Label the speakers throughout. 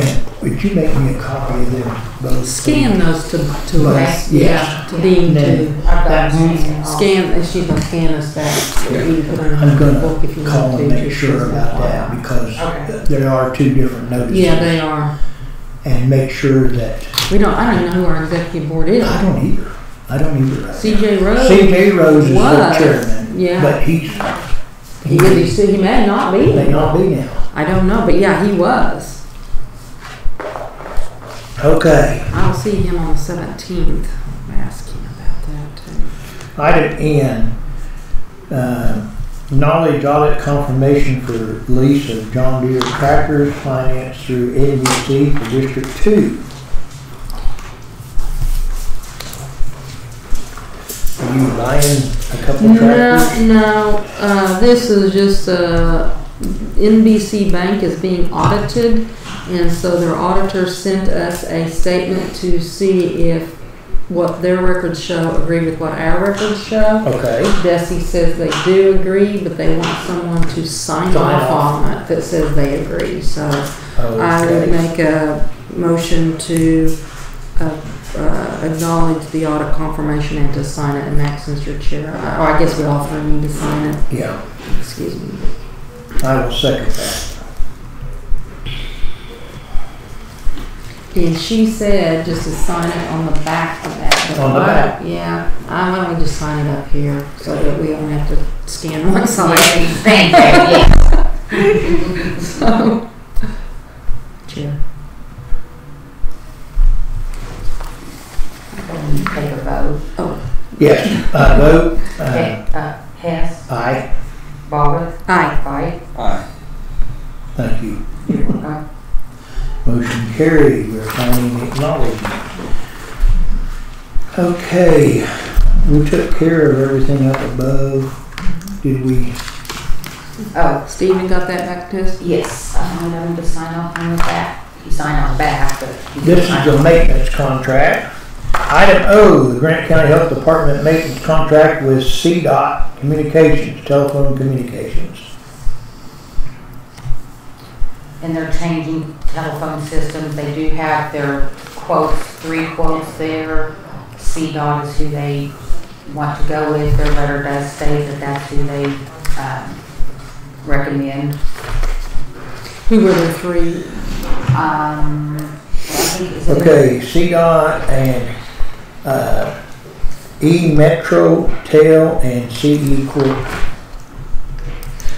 Speaker 1: And would you make me a copy of them both?
Speaker 2: Scan those to, to us,
Speaker 1: Us, yeah.
Speaker 2: yeah, to Dean, to,
Speaker 3: I've got it.
Speaker 2: scan, and she's gonna scan us that, that you can put on
Speaker 1: I'm
Speaker 2: your
Speaker 1: gonna
Speaker 2: book if you
Speaker 1: call
Speaker 2: want to.
Speaker 1: and make
Speaker 2: just
Speaker 1: sure
Speaker 2: as a
Speaker 1: about
Speaker 2: file.
Speaker 1: that
Speaker 3: Okay.
Speaker 1: because there are two different notices.
Speaker 2: Yeah, they are.
Speaker 1: And make sure that,
Speaker 2: We don't, I don't even know who our executive board is.
Speaker 1: I don't either, I don't either. right now.
Speaker 2: CJ Rhodes,
Speaker 1: CJ Rose is the
Speaker 2: Was,
Speaker 1: chairman.
Speaker 2: yeah.
Speaker 1: But he's,
Speaker 2: he, is- he may not
Speaker 1: he may
Speaker 2: be.
Speaker 1: not be now.
Speaker 2: I don't know, but yeah, he was.
Speaker 1: Okay,
Speaker 2: I'll see him on the seventeenth. Ask him about that too.
Speaker 1: item N. um, Knowledge audit confirmation for lease of John Deere tractors financed through NBC for District Two. Are you buying a couple tractors?
Speaker 2: No, no, uh, this is just, uh, NBC Bank is being audited. And so their auditor sent us a statement to see if what their records show agree with what our records show.
Speaker 1: Okay,
Speaker 2: Desi says they do agree, but they want someone to sign
Speaker 1: Sign
Speaker 2: off
Speaker 1: off.
Speaker 2: on it that says they agree, so. I would
Speaker 1: okay.
Speaker 2: make a motion to uh, uh, acknowledge the audit confirmation and to sign it, and Max, since you're chair, uh, or I guess we all three need to sign it,
Speaker 1: Yeah,
Speaker 2: excuse me.
Speaker 1: I will second that.
Speaker 2: And she said just to sign it on the back of that. but
Speaker 1: On the
Speaker 2: why-
Speaker 1: back?
Speaker 2: Yeah, I why don't we just sign it up here, so that we don't have to scan one side,
Speaker 3: Thank you, yeah.
Speaker 2: so. Chair.
Speaker 3: Can you Take a vote.
Speaker 1: Yes, I vote, uh,
Speaker 3: Okay, uh, Hess,
Speaker 1: aye,
Speaker 3: Bobbit,
Speaker 2: Aye.
Speaker 3: Fight.
Speaker 1: thank you.
Speaker 3: Uh,
Speaker 1: Motion carried, we're finding acknowledgement. Okay, we took care of everything up above. Did we,
Speaker 3: Oh,
Speaker 2: Steven got that back to us?
Speaker 3: yes, Uh, I know him to sign off on the back. You sign on the back, but. you can
Speaker 1: this is
Speaker 3: sign-
Speaker 1: the maintenance contract. Item O, the Grant County Health Department maintenance contract with CDOT Communications, telephone communications.
Speaker 3: And they're changing telephone systems. They do have their quotes, three quotes there. CDOT is who they want to go with. Their letter does state that that's who they, um, recommend.
Speaker 2: Who were the three?
Speaker 3: Um, I think it's.
Speaker 1: Okay, CDOT and, uh, E Metro, TEL, and CE Corp.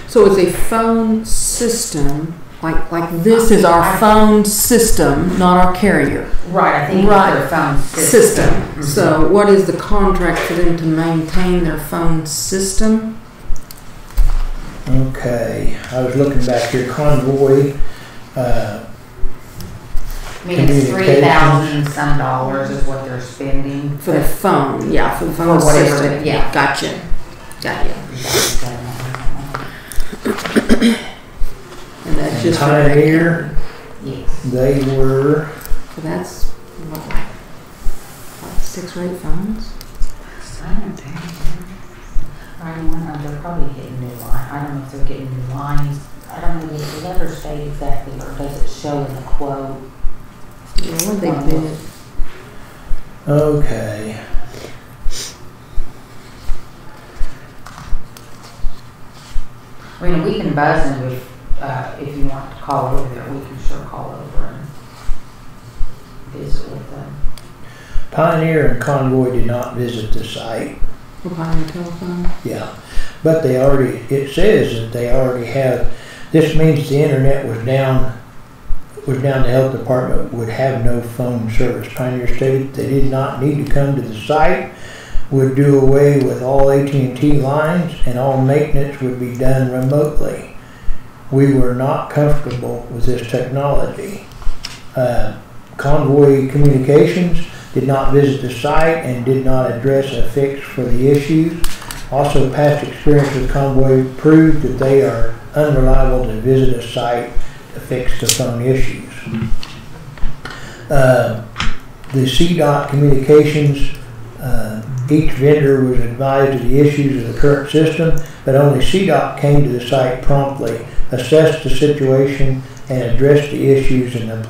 Speaker 2: So it's a phone system, like, like this is our phone system, not our carrier
Speaker 3: Right, I think it's their
Speaker 2: Right.
Speaker 3: phone system.
Speaker 2: system. So what is the contract for them to maintain their phone system?
Speaker 1: Okay, I was looking back here, convoy, uh,
Speaker 3: I mean, it's three thousand some dollars is what they're spending.
Speaker 2: For the phone, yeah, for the phone
Speaker 3: For whatever,
Speaker 2: system.
Speaker 3: yeah.
Speaker 2: Gotcha, got you. And that's
Speaker 1: and
Speaker 2: just. for-
Speaker 1: Pioneer,
Speaker 3: Yes.
Speaker 1: they were,
Speaker 2: So that's, what, like, what, six or eight phones?
Speaker 3: I don't know, they're probably getting new line, I don't know if they're getting new lines, I don't know, does the letter state exactly, or does it show in the quote?
Speaker 2: Yeah, what they did.
Speaker 1: okay.
Speaker 3: I mean, we can buzz and we, uh, if you want to call over there, we can sure call over and visit with them.
Speaker 1: Pioneer and Convoy did not visit the site,
Speaker 2: We're buying a telephone.
Speaker 1: yeah, but they already, it says that they already have, this means the internet was down, was down, the health department would have no phone service. Pioneer stated they did not need to come to the site, would do away with all AT&T lines, and all maintenance would be done remotely. we were not comfortable with this technology. Uh, Convoy Communications did not visit the site and did not address a fix for the issues. Also, past experience with Convoy proved that they are unreliable to visit a site to fix the phone issues. Uh, The CDOT Communications, uh, each vendor was advised of the issues of the current system, but only CDOT came to the site promptly assess the situation and address the issues and